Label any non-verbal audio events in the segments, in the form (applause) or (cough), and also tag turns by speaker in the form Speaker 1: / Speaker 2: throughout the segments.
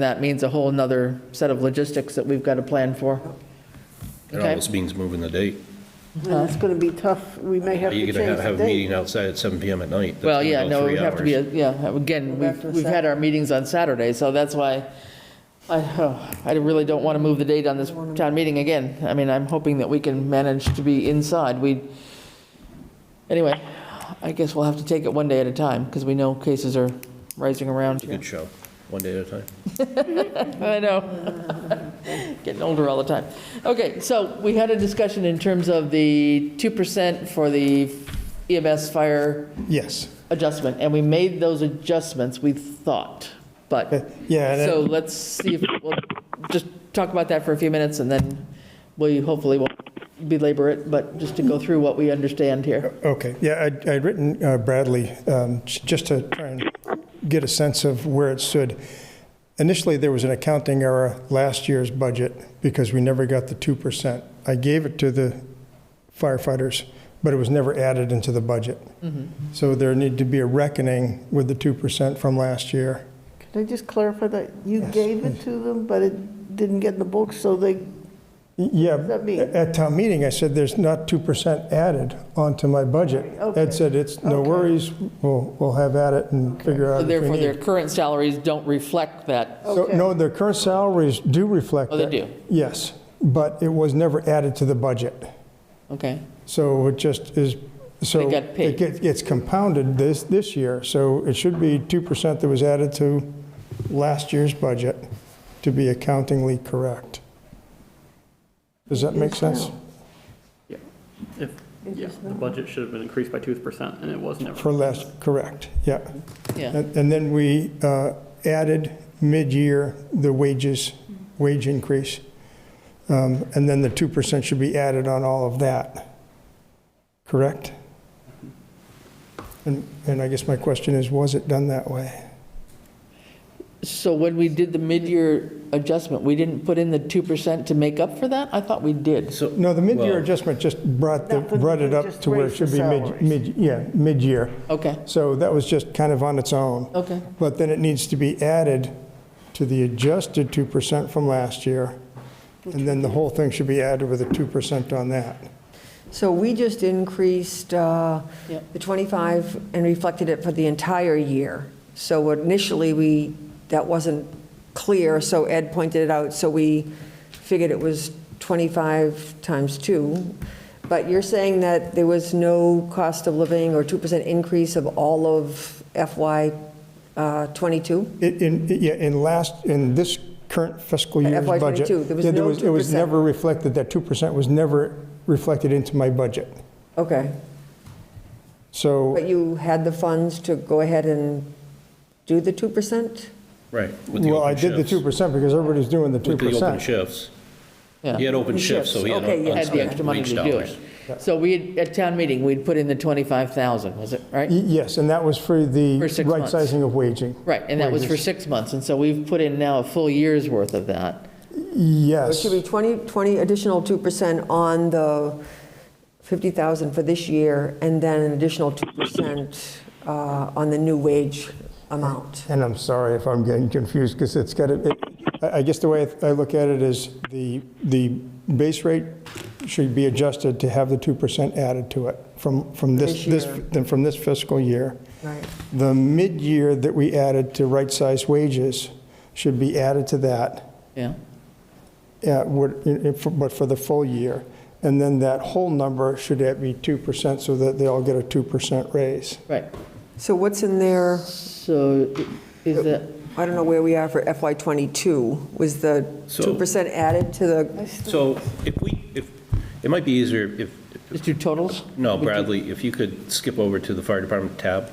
Speaker 1: That means a whole nother set of logistics that we've got to plan for.
Speaker 2: It
Speaker 1: Okay.
Speaker 2: almost means moving the date.
Speaker 3: And it's going to be tough. We may have to
Speaker 2: You're
Speaker 3: change
Speaker 2: going to have
Speaker 3: the
Speaker 2: a
Speaker 3: date.
Speaker 2: meeting outside at 7 PM at night. That's
Speaker 1: Well,
Speaker 2: gonna
Speaker 1: yeah,
Speaker 2: go
Speaker 1: no, it
Speaker 2: three
Speaker 1: would have to be,
Speaker 2: hours.
Speaker 1: a- yeah, again,
Speaker 3: Go back to
Speaker 1: we've
Speaker 3: the
Speaker 1: we've had our meetings on Saturday, so that's why I, oh, I really don't want to move the date on this town meeting again. I mean, I'm hoping that we can manage to be inside. We, anyway, I guess we'll have to take it one day at a time because we know cases are rising around.
Speaker 2: It's a good show, one day at a time.
Speaker 1: I know. (laughs) Getting older all the time. Okay, so we had a discussion in terms of the 2% for the EMS fire
Speaker 4: Yes.
Speaker 1: adjustment, and we made those adjustments, we thought,
Speaker 4: Uh,
Speaker 1: but,
Speaker 4: Yeah, and
Speaker 1: so
Speaker 4: it-
Speaker 1: let's see if, we'll just talk about that for a few minutes, and then we hopefully won't belabor it, but just to go through what we understand here.
Speaker 4: okay, yeah, I'd I'd written uh, Bradley um, j- just to try and get a sense of where it stood. Initially, there was an accounting error last year's budget because we never got the 2%. I gave it to the firefighters, but it was never added into the budget. So there needed to be a reckoning with the 2% from last year.
Speaker 3: Can I just clarify that? You gave it to them, but it didn't get in the book, so they,
Speaker 4: Y- Yeah,
Speaker 3: that mean?
Speaker 4: at town meeting, I said, there's not 2% added onto my budget.
Speaker 3: Okay.
Speaker 4: Ed said, it's, no
Speaker 3: Okay.
Speaker 4: worries, we'll, we'll have at it and figure out
Speaker 1: So
Speaker 4: if we
Speaker 1: Therefore,
Speaker 4: need.
Speaker 1: their current salaries don't reflect that.
Speaker 4: So,
Speaker 3: Okay.
Speaker 4: no, their current salaries do reflect
Speaker 1: Oh, they
Speaker 4: that.
Speaker 1: do?
Speaker 4: Yes, but it was never added to the budget.
Speaker 1: Okay,
Speaker 4: So it just is, so.
Speaker 1: They got paid.
Speaker 4: It gets, it's compounded this, this year, so it should be 2% that was added to last year's budget to be accountingly correct. Does that make sense?
Speaker 5: If, yeah, the budget should have been increased by two percent, and it was never.
Speaker 4: For last, correct, yeah.
Speaker 1: yeah,
Speaker 4: And and then we uh, added mid-year the wages, wage increase. Um, And then the 2% should be added on all of that, correct? And, and I guess my question is, was it done that way?
Speaker 1: so when we did the mid-year adjustment, we didn't put in the 2% to make up for that? I thought we did.
Speaker 2: So,
Speaker 4: No, the mid-year
Speaker 2: Well-
Speaker 4: adjustment just brought, the
Speaker 3: That would-
Speaker 4: brought it up
Speaker 3: just
Speaker 4: to where it
Speaker 3: raised
Speaker 4: should
Speaker 3: the
Speaker 4: be mid,
Speaker 3: salaries.
Speaker 4: mid, yeah, mid-year.
Speaker 1: Okay,
Speaker 4: So that was just kind of on its own.
Speaker 1: okay,
Speaker 4: But then it needs to be added to the adjusted 2% from last year, and then the whole thing should be added with a 2% on that.
Speaker 6: So we just increased uh,
Speaker 1: Yep.
Speaker 6: the 25 and reflected it for the entire year. So initially, we, that wasn't clear, so Ed pointed it out, so we figured it was 25 times 2. But you're saying that there was no cost of living or 2% increase of all of uh, FY '22?
Speaker 4: It- In, yeah, in last, in this current fiscal
Speaker 6: At
Speaker 4: year's
Speaker 6: FY
Speaker 4: budget.
Speaker 6: 22, there was
Speaker 4: yeah,
Speaker 6: no
Speaker 4: It was
Speaker 6: 2%.
Speaker 4: never reflected, that 2% was never reflected into my budget.
Speaker 6: Okay,
Speaker 4: So,
Speaker 6: but you had the funds to go ahead and do the 2%?
Speaker 2: right. with the
Speaker 4: well, I
Speaker 2: open
Speaker 4: did the
Speaker 2: shifts.
Speaker 4: 2% because everybody's doing the 2%.
Speaker 2: With the open shifts. He
Speaker 1: yeah.
Speaker 2: had open
Speaker 6: Open
Speaker 2: shifts, so he had
Speaker 6: shifts, okay, yeah.
Speaker 1: Had the
Speaker 2: unspent
Speaker 1: extra money
Speaker 2: wage
Speaker 1: to do
Speaker 2: dollars.
Speaker 1: it. So we, had- at town meeting, we'd put in the 25,000, was it, right?
Speaker 4: Y- Yes, and that was for the
Speaker 1: For six
Speaker 4: right
Speaker 1: months.
Speaker 4: sizing of waging.
Speaker 1: Right, and that was for
Speaker 4: Wages.
Speaker 1: six months, and so we've put in now a full year's worth of that.
Speaker 6: It
Speaker 4: Yes.
Speaker 6: should be 20, 20 additional 2% on the 50,000 for this year, and then an additional 2% uh, on the new wage amount.
Speaker 4: And I'm sorry if I'm getting confused, because it's got, to- it- I I guess the way I look at it is the, the base rate should be adjusted to have the 2% added to it from, from this, this,
Speaker 6: This year.
Speaker 4: then from this fiscal year.
Speaker 6: Right.
Speaker 4: The mid-year that we added to right-size wages should be added to that,
Speaker 1: Yeah,
Speaker 4: uh, would- in- in- for- but for the full year. And then that whole number should be 2% so that they all get a 2% raise.
Speaker 1: right.
Speaker 6: So what's in there,
Speaker 1: So is that,
Speaker 6: I don't know where we are for FY '22, was the
Speaker 2: So-
Speaker 6: 2% added to the,
Speaker 2: So if we, if, it might be easier if,
Speaker 1: just do totals?
Speaker 2: no, Bradley, if you could skip over to the fire department tab.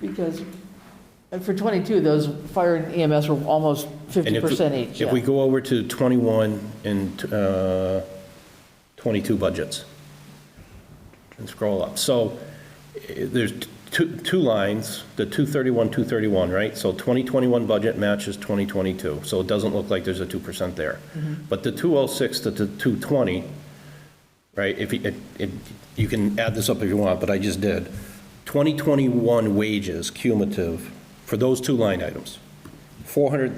Speaker 1: Because and for 22, those fire and EMS were almost
Speaker 2: And if we-
Speaker 1: 50% each,
Speaker 2: If we
Speaker 1: yeah.
Speaker 2: go over to 21 and uh, 22 budgets and scroll up. So eh, there's t- two, two lines, the 231, 231, right? So 2021 budget matches 2022, so it doesn't look like there's a 2% there.
Speaker 1: Mm-hmm.
Speaker 2: But the 206 to the 220, right, if, you- it- it- you can add this up if you want, but I just did. 2021 wages cumulative for those two line items, 430